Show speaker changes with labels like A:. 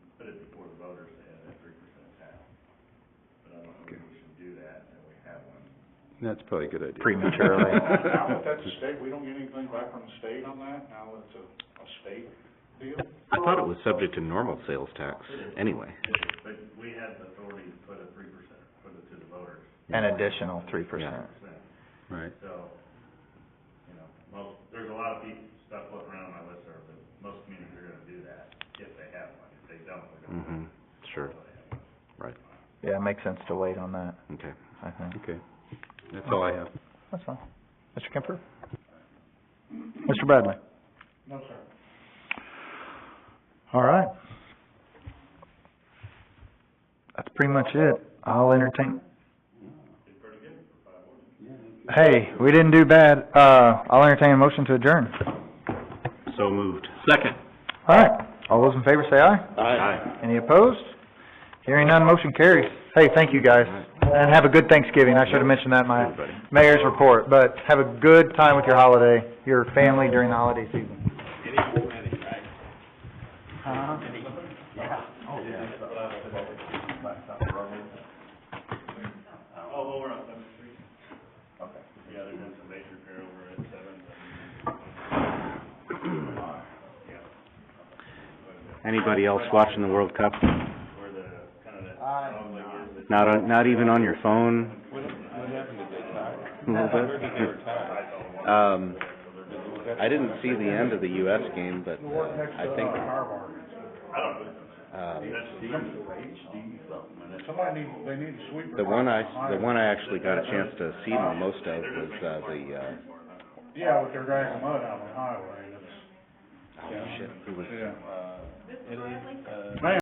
A: That's probably a good idea.
B: Prematurely.
C: Now, with that state, we don't get anything back from the state on that, now it's a, a state deal.
D: I thought it was subject to normal sales tax, anyway.
E: But we had the authority to put a three percent, put it to the voters,
B: An additional three percent.
E: percent.
A: Right.
E: So, you know, most, there's a lot of people, stuff floating around on my list there, but most communities are gonna do that if they have one. If they don't, they're gonna.
D: Mm-hmm, sure,
B: Yeah, it makes sense to wait on that,
D: okay.
B: I think.
A: Okay. That's all I have.
B: That's fine. Mr. Kemper? Mr. Bradley?
C: No, sir.
B: All right. That's pretty much it. I'll entertain. Hey, we didn't do bad. Uh, I'll entertain a motion to adjourn.
D: So moved. Second.
B: All right. All those in favor say aye.
D: Aye.
B: Any opposed? Hearing none, motion carries. Hey, thank you guys. And have a good Thanksgiving. I should have mentioned that in my
D: Everybody.
B: mayor's report, but have a good time with your holiday, your family during the holiday season. Uh-huh.
E: Oh, over on Seventh Street. Okay. Yeah, there's been some major repair over at Seventh.
D: Anybody else watching the World Cup?
E: where the, kind of that, dog leg is, that
D: Not on, not even on your phone?
E: Uh,
D: What, what happened, did they tie? Um, I didn't see the end of the US game, but, uh, I think, um,
C: Somebody needs, they need a sweeper.
D: the one I, the one I actually got a chance to see the most of was, uh, the, uh,
C: Yeah, with their dragging mud out on the highway, that's,
D: oh shit, who was,
C: yeah.